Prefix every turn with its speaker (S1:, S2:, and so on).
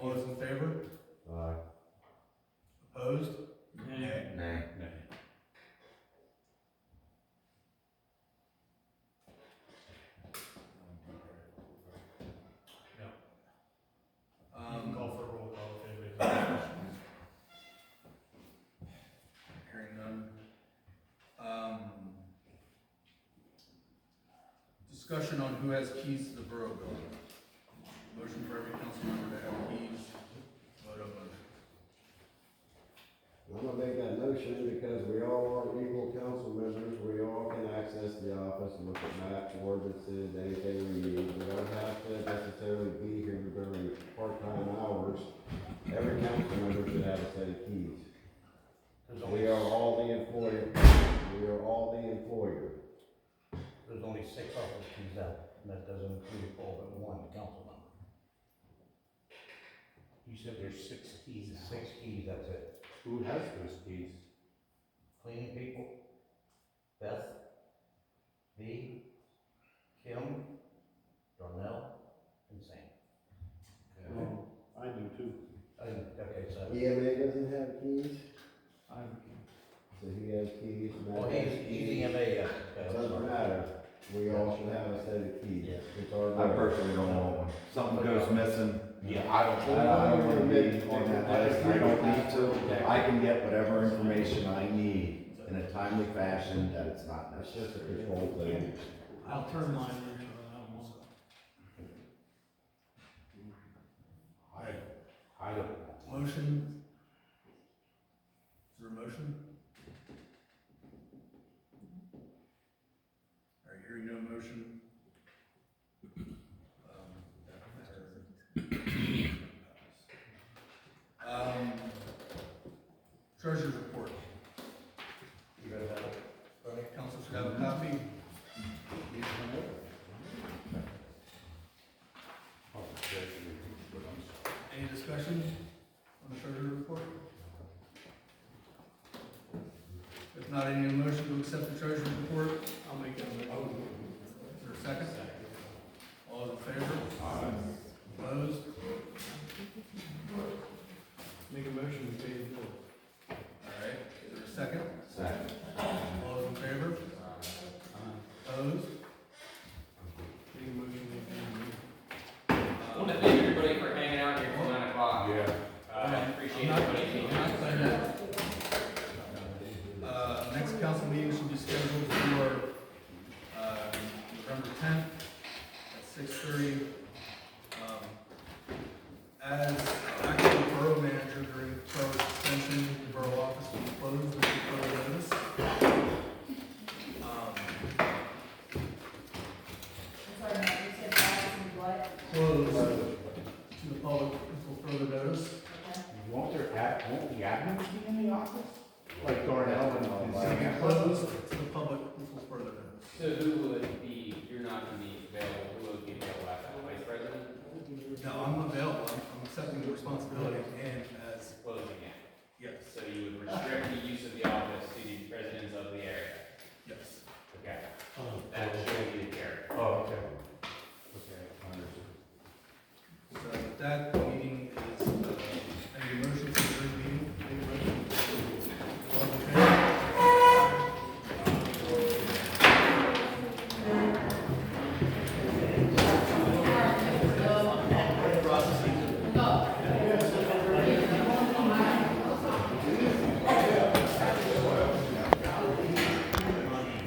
S1: All those in favor?
S2: Aye.
S1: Opposed?
S3: Nay.
S2: Nay.
S1: Um,
S3: Call for a roll call if anybody's got any questions.
S1: Hearing none. Um, Discussion on who has keys to the borough building. Motion for every council member to have keys, vote on motion.
S2: I'm gonna make that motion because we all are equal council members, we all can access the office, look at maps, ordinances, anything we need. We don't have to necessarily be here during part-time hours. Every council member should have a set of keys.
S4: There's
S2: We
S4: only,
S2: are all the employer, we are all the employer.
S4: there's only six office keys out, and that doesn't include all but one council member.
S5: You said there's six keys now.
S4: Six keys, that's it.
S2: Who has those keys?
S4: Cleaning people, Beth, V, Kim, Darnell, and Sam.
S5: I do too.
S4: I think- Okay, so,
S2: EMA E doesn't have keys,
S5: I,
S2: so he has keys,
S4: well,
S2: Matt
S4: he's, E
S2: has
S4: he's
S2: keys.
S4: EMA, yeah.
S2: It Doesn't matter, we all should have a set of keys.
S4: Yeah.
S2: It's our.
S6: I personally don't want one. Something goes missing. Yeah. I don't, I don't wanna be on that list. I don't need to. I can get whatever information I need in a timely fashion that it's not
S2: That's
S6: necessary.
S2: just a control thing.
S3: I'll turn mine into an animal.
S5: I, I don't know.
S1: Motion? Is there a motion? All right, hearing no motion. Um, that matter. Um, Treasurer's report.
S4: You ready about it? Bernie?
S1: Council should have a copy.
S5: Oh, there's the- what I'm saying.
S1: Any discussion on the treasurer report? If not, any motion to accept the treasurer report? I'll make that motion. Is there a second? All those in favor? Opposed?
S3: Make a motion to pay the bill.
S1: All right, is there a second?
S6: Second.
S1: All those in favor? Opposed?
S3: Make a motion to pay the bill.
S7: I want to thank everybody for hanging out here till nine o'clock.
S5: Yeah.
S7: Uh, I appreciate everybody being here.
S1: Uh, next council meeting should be scheduled for, uh, November tenth at six thirty. Um, As acting borough manager during borough extension, the borough office will be closed with further notice. Um,
S8: I'm sorry, Matt, you said that is what?
S1: Closed to the public until further notice.
S8: Okay.
S5: Won't there, ad- won't the admin be in the office? Like Darnell and- and
S1: It'll be
S5: Sam?
S1: Closed to the public until further notice.
S7: So who would be, you're not gonna be available, who would be available after, the vice president?
S1: No, I'm uh,